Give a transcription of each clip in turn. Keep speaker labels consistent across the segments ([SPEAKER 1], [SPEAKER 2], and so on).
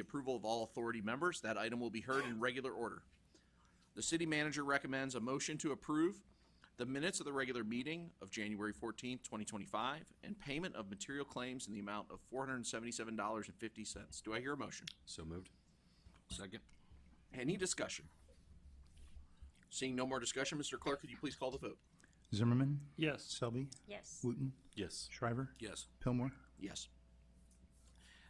[SPEAKER 1] the approval of all authority members. That item will be heard in regular order. The city manager recommends a motion to approve the minutes of the regular meeting of January fourteenth, twenty twenty-five, and payment of material claims in the amount of four hundred and seventy-seven dollars and fifty cents. Do I hear a motion?
[SPEAKER 2] So moved. Second.
[SPEAKER 1] Any discussion? Seeing no more discussion, Mr. Clerk, could you please call the vote?
[SPEAKER 3] Zimmerman,
[SPEAKER 4] Yes.
[SPEAKER 3] Selby,
[SPEAKER 5] yes,
[SPEAKER 3] Wooten,
[SPEAKER 2] Yes.
[SPEAKER 3] Shriver,
[SPEAKER 2] Yes.
[SPEAKER 3] Pillmore,
[SPEAKER 1] Yes.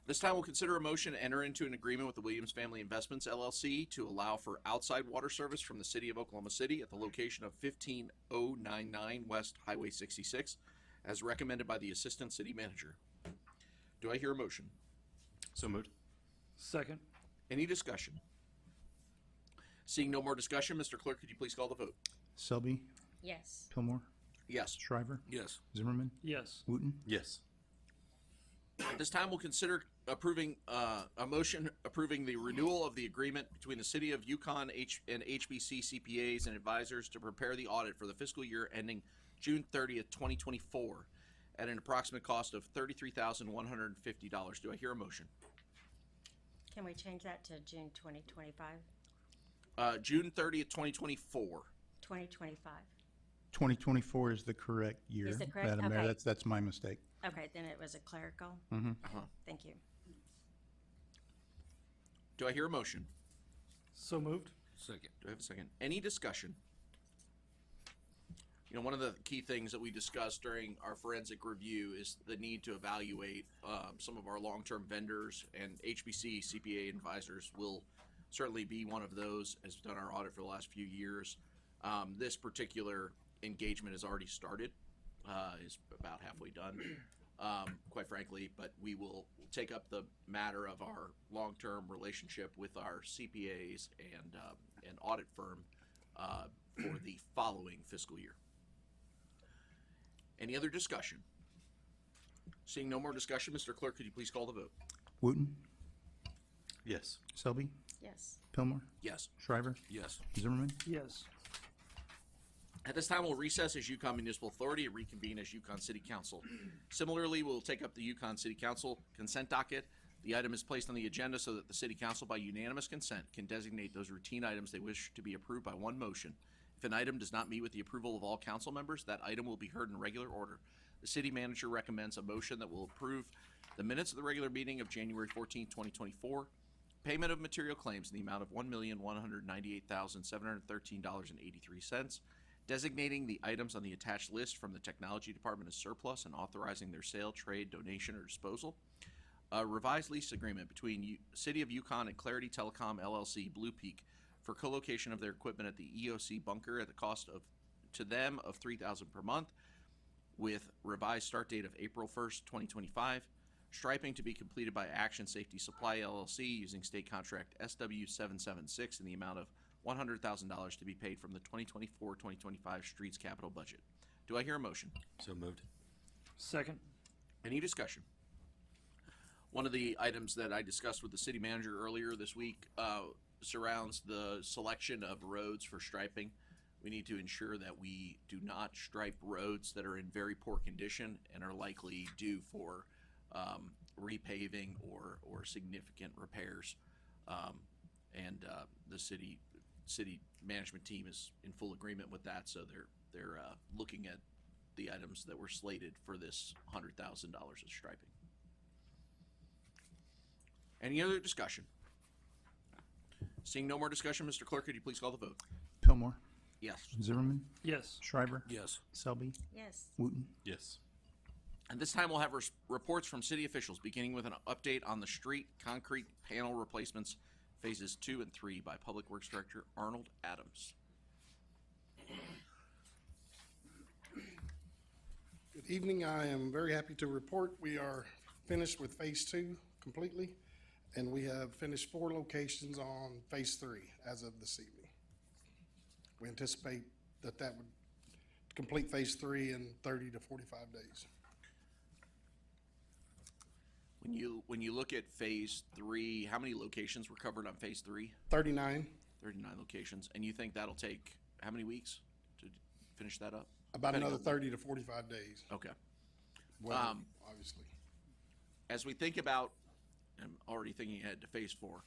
[SPEAKER 1] This time we'll consider a motion to enter into an agreement with the Williams Family Investments LLC to allow for outside water service from the city of Oklahoma City at the location of fifteen oh nine nine West Highway sixty-six, as recommended by the Assistant City Manager. Do I hear a motion?
[SPEAKER 2] So moved.
[SPEAKER 4] Second.
[SPEAKER 1] Any discussion? Seeing no more discussion, Mr. Clerk, could you please call the vote?
[SPEAKER 3] Selby,
[SPEAKER 5] yes,
[SPEAKER 3] Pillmore,
[SPEAKER 1] Yes.
[SPEAKER 3] Shriver,
[SPEAKER 2] Yes.
[SPEAKER 3] Zimmerman,
[SPEAKER 4] Yes.
[SPEAKER 3] Wooten,
[SPEAKER 2] Yes.
[SPEAKER 1] At this time, we'll consider approving, uh, a motion approving the renewal of the agreement between the City of Yukon H- and HBC CPAs and advisors to prepare the audit for the fiscal year ending June thirtieth, twenty twenty-four, at an approximate cost of thirty-three thousand one hundred and fifty dollars. Do I hear a motion?
[SPEAKER 5] can we change that to June twenty twenty-five,
[SPEAKER 1] Uh, June thirtieth, twenty twenty-four.
[SPEAKER 5] twenty twenty-five?
[SPEAKER 3] 2024 is the correct year.
[SPEAKER 5] Is the correct-
[SPEAKER 3] Madam Mayor,
[SPEAKER 5] okay.
[SPEAKER 3] that's, that's my mistake.
[SPEAKER 5] Okay, then it was a clerical?
[SPEAKER 1] Uh-huh.
[SPEAKER 5] Thank you,
[SPEAKER 1] Do I hear a motion?
[SPEAKER 4] So moved.
[SPEAKER 2] Second.
[SPEAKER 1] Do I have a second? Any discussion? You know, one of the key things that we discussed during our forensic review is the need to evaluate um, some of our long-term vendors, and HBC CPA advisors will certainly be one of those. Has done our audit for the last few years. Um, this particular engagement has already started; uh, is about halfway done, um, quite frankly. But we will take up the matter of our long-term relationship with our CPAs and uh, an audit firm uh, for the following fiscal year. Any other discussion? Seeing no more discussion, Mr. Clerk, could you please call the vote?
[SPEAKER 3] Wooten,
[SPEAKER 2] Yes.
[SPEAKER 3] Selby,
[SPEAKER 5] yes,
[SPEAKER 3] Pillmore,
[SPEAKER 1] Yes.
[SPEAKER 3] Shriver,
[SPEAKER 2] Yes.
[SPEAKER 3] Zimmerman,
[SPEAKER 4] Yes.
[SPEAKER 1] At this time, we'll recess as Yukon Municipal Authority and reconvene as Yukon City Council. Similarly, we'll take up the Yukon City Council consent docket. The item is placed on the agenda so that the City Council, by unanimous consent, can designate those routine items they wish to be approved by one motion. If an item does not meet with the approval of all council members, that item will be heard in regular order. The city manager recommends a motion that will approve the minutes of the regular meeting of January 14, 2024, Payment of material claims in the amount of one million one hundred ninety-eight thousand seven hundred thirteen dollars and eighty-three cents, designating the items on the attached list from the technology department as surplus and authorizing their sale, trade, donation, or disposal. A revised lease agreement between U- City of Yukon and Clarity Telecom LLC Blue Peak for co-location of their equipment at the EOC bunker at the cost of to them of three thousand per month, with revised start date of April 1st, 2025. Striping to be completed by Action Safety Supply LLC using state contract SW776 in the amount of $100,000 to be paid from the 2024-2025 streets capital budget. Do I hear a motion?
[SPEAKER 2] So moved.
[SPEAKER 4] Second.
[SPEAKER 1] Any discussion? One of the items that I discussed with the city manager earlier this week uh, surrounds the selection of roads for striping. We need to ensure that we do not stripe roads that are in very poor condition and are likely due for um, repaving or, or significant repairs. Um, and uh, the city city management team is in full agreement with that, so they're they're uh, looking at the items that were slated for this hundred thousand dollars of striping. Any other discussion? Seeing no more discussion, Mr. Clerk, could you please call the vote?
[SPEAKER 3] Pillmore,
[SPEAKER 1] Yes.
[SPEAKER 3] Zimmerman,
[SPEAKER 4] Yes.
[SPEAKER 3] Shriver,
[SPEAKER 2] Yes.
[SPEAKER 3] Selby,
[SPEAKER 5] yes,
[SPEAKER 3] Wooten,
[SPEAKER 2] Yes.
[SPEAKER 1] And this time we'll have res- reports from city officials, beginning with an update on the street concrete panel replacements phases two and three by Public Works Director Arnold Adams.
[SPEAKER 6] Good evening. I am very happy to report we are finished with phase two completely, and we have finished four locations on phase three as of this evening. We anticipate that that would complete phase three in thirty to forty-five days.
[SPEAKER 1] When you when you look at phase three, how many locations were covered on phase three?
[SPEAKER 6] Thirty-nine,
[SPEAKER 1] Thirty-nine locations, and you think that'll take how many weeks to finish that up?
[SPEAKER 6] about
[SPEAKER 1] Depending
[SPEAKER 6] another
[SPEAKER 1] on-
[SPEAKER 6] thirty to forty-five days,
[SPEAKER 1] Okay.
[SPEAKER 6] well,
[SPEAKER 1] Um,
[SPEAKER 6] obviously.
[SPEAKER 1] As we think about I'm already thinking ahead to phase four.